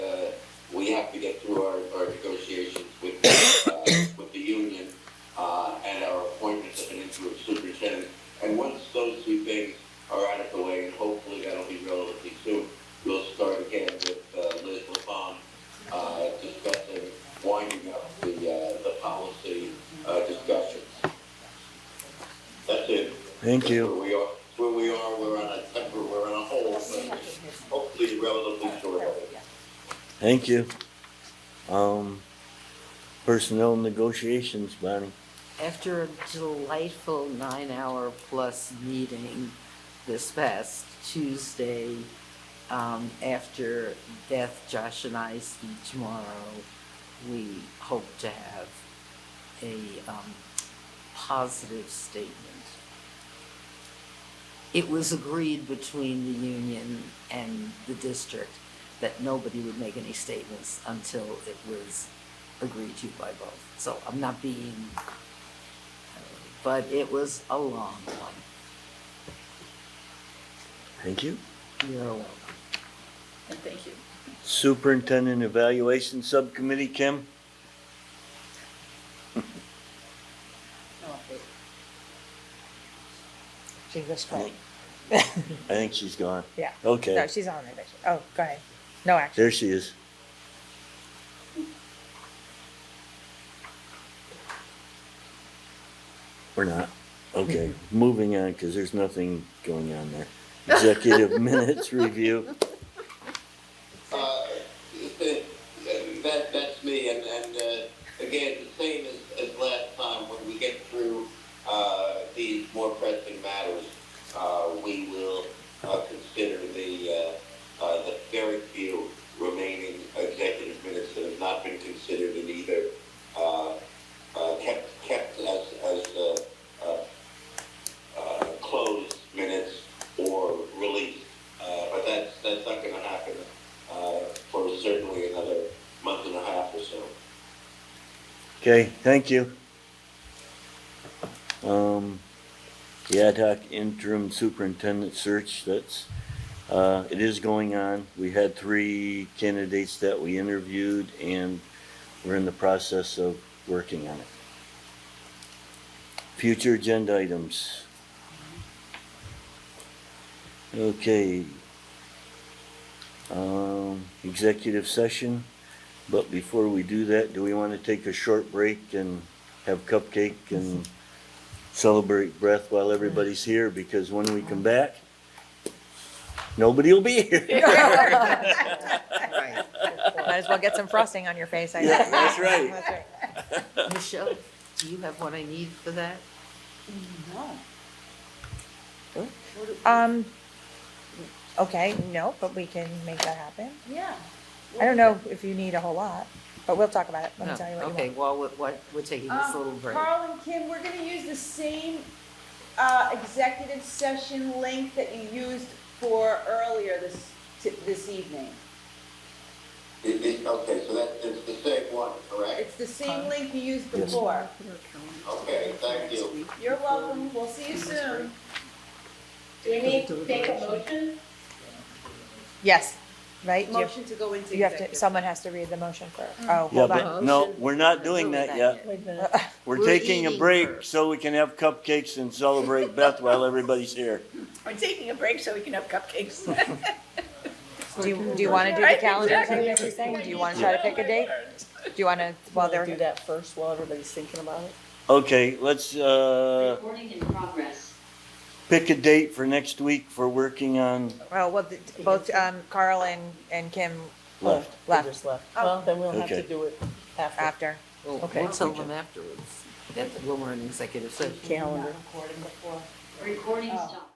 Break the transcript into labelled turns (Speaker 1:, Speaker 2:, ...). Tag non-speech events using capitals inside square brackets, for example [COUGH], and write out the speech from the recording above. Speaker 1: uh, our negotiations with, uh, with the union, uh, and our appointment of an interim superintendent. And once those two things are out of the way, and hopefully that'll be relatively soon, we'll start again with, uh, Liz LaFawn, uh, discussing, winding up the, uh, the policy, uh, discussions. That's it.
Speaker 2: Thank you.
Speaker 1: Where we are, where we are, we're on a temper, we're on a hole, but hopefully relatively short.
Speaker 2: Thank you. Um, personnel negotiations, Bonnie.
Speaker 3: After a delightful nine-hour-plus meeting this past Tuesday, um, after Beth, Josh, and I speak tomorrow, we hope to have a um, positive statement. It was agreed between the union and the district that nobody would make any statements until it was agreed to by both. So I'm not being but it was a long one.
Speaker 2: Thank you.
Speaker 3: You're welcome.
Speaker 4: And thank you.
Speaker 2: Superintendent Evaluation Subcommittee, Kim?
Speaker 5: She was trying.
Speaker 2: I think she's gone.
Speaker 5: Yeah. [LAUGHS] No,
Speaker 2: Okay,
Speaker 5: she's on it. Oh, go ahead. No action.
Speaker 6: [LAUGHS]
Speaker 2: there she is. Or not.
Speaker 5: [LAUGHS]
Speaker 2: Okay, moving on, because there's nothing going on there.
Speaker 5: [LAUGHS]
Speaker 2: Executive minutes review.
Speaker 1: Uh, th- that, that's me, and, and, uh, again, the same as, as last time, when we get through, uh, these more pressing matters, uh, we will, uh, consider the, uh, uh, the very few remaining executive minutes that have not been considered and either, uh, uh, kept, kept as, as, uh, uh, uh, closed minutes or released, uh, but that's, that's not gonna happen uh, for certainly another month and a half or so.
Speaker 2: Okay, thank you. Um, the ad hoc interim superintendent search, that's, uh, it is going on. We had three candidates that we interviewed and we're in the process of working on it. Future agenda items. Okay. Um, executive session. But before we do that, do we want to take a short break and have cupcake and celebrate breath while everybody's here? Because when we come back, nobody will be here.
Speaker 3: Right.
Speaker 5: Might as well get some frosting on your face, I
Speaker 2: Yeah,
Speaker 5: guess.
Speaker 2: that's right.
Speaker 3: [LAUGHS] Michelle, do you have what I need for that?
Speaker 5: Um, okay, no, but we can make that happen.
Speaker 4: Yeah.
Speaker 5: I don't know if you need a whole lot, but we'll talk about it. Let
Speaker 3: No.
Speaker 6: Oh,
Speaker 5: me tell you what you
Speaker 3: Okay,
Speaker 5: want. Uh,
Speaker 3: well, we're, what- we're taking this little
Speaker 4: Um,
Speaker 3: break.
Speaker 4: Carl and Kim, we're gonna use the same, uh, executive session link that you used for earlier this, t- this evening.
Speaker 1: It, it, okay, so that is the same one, correct?
Speaker 4: It's the same link you used
Speaker 2: Yes.
Speaker 4: before.
Speaker 1: Okay, thank you.
Speaker 4: You're welcome, we'll see you soon.
Speaker 7: Do we need to take a motion?
Speaker 5: Yes, right? You have-
Speaker 4: Motion to go into
Speaker 5: You have to,
Speaker 4: executive.
Speaker 5: someone has to read the motion for,
Speaker 6: Mm.
Speaker 5: oh,
Speaker 2: Yeah,
Speaker 5: hold on.
Speaker 2: but no, we're not doing that yet. [LAUGHS] We're
Speaker 3: We're
Speaker 2: taking a
Speaker 3: eating
Speaker 2: break
Speaker 3: first.
Speaker 2: so we can have cupcakes and celebrate Beth [LAUGHS] while everybody's here.
Speaker 8: We're taking a break so we can have
Speaker 3: [LAUGHS]
Speaker 8: cupcakes.
Speaker 5: Do you, do you want to do the
Speaker 8: Right,
Speaker 5: calendar
Speaker 8: exactly.
Speaker 5: thing that you're saying? Do you want to try to pick a date? Do you want to, while
Speaker 6: Wanna do
Speaker 5: they're,
Speaker 6: that first while everybody's thinking about it?
Speaker 2: Okay, let's, uh,
Speaker 7: Recording in progress.
Speaker 2: pick a date for next week for working on
Speaker 5: well, well, the- both, um, Carl and, and Kim
Speaker 2: left.
Speaker 6: They
Speaker 5: left
Speaker 6: just left. Well, then we'll have
Speaker 2: Okay.
Speaker 6: to do it after
Speaker 5: after.
Speaker 3: We'll,
Speaker 6: Okay.
Speaker 3: we'll tell them afterwards, that when we're in executive session.
Speaker 6: calendar.
Speaker 7: Recording stopped.